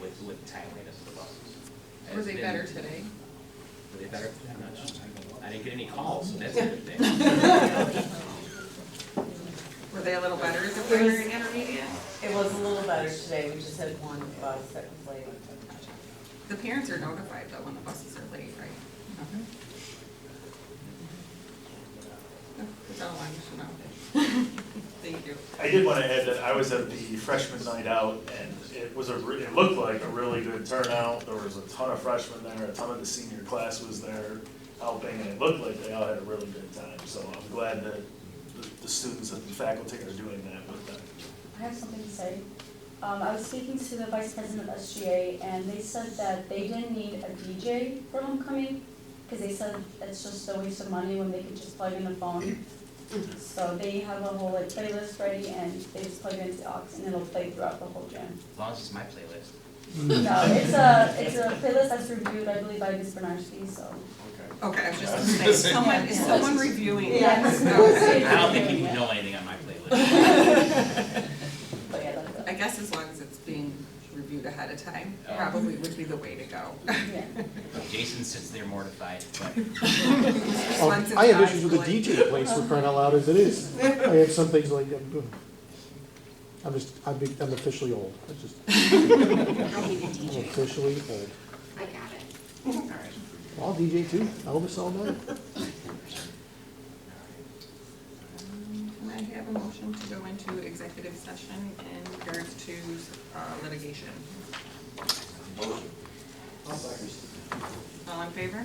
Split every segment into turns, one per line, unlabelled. with timeliness of the buses.
Were
It's
they
been-
better today?
Were they better? I'm not sure. I didn't get any calls, so that's a good thing.
Were they a little better as a
There
winter
was-
and intermediate?
It was a little better today, we just had one bus that was late.
The parents are notified though when the buses are late, right? Mm-hmm. That's all I wanted to know. Thank you.
I did want to add that I was at the freshman night out and it was a, re- it looked like a really good turnout. There was a ton of freshmen there, a ton of the senior class was there helping and it looked like they all had a really good time. So I'm glad that the- the students and the faculty are doing that with them.
I have something to say. Um, I was speaking to the vice president of SGA, and they said that they didn't need a DJ for homecoming, because they said it's just a waste of money when they could just plug in a phone. So they have a whole like playlist ready, and they just plug it into the aux, and it'll play throughout the whole gym.
As long as it's my playlist.
No, it's a, it's a playlist that's reviewed, I believe, by Ms. Bernarski, so.
Okay, I was just gonna say, someone, is someone reviewing this?
Yeah.
I don't think you would know anything on my playlist.
But yeah, that's
I
it.
guess as long as it's being reviewed ahead of time,
Yeah.
probably would be the way to go.
Yeah.
Jason sits there mortified, but
Oh,
Once it's
I have
done,
issues with the
like-
DJ place for crying out loud as it is. I have some things like, I'm, I'm just, I'm big- I'm officially old, I just,
I need a
I'm
DJ.
officially old.
I got it. All right.
I'll DJ too, I'll miss all night.
Can I have a motion to go into executive session in regards to uh, litigation? All in favor?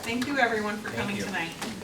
Thank you, everyone, for coming
you.
tonight.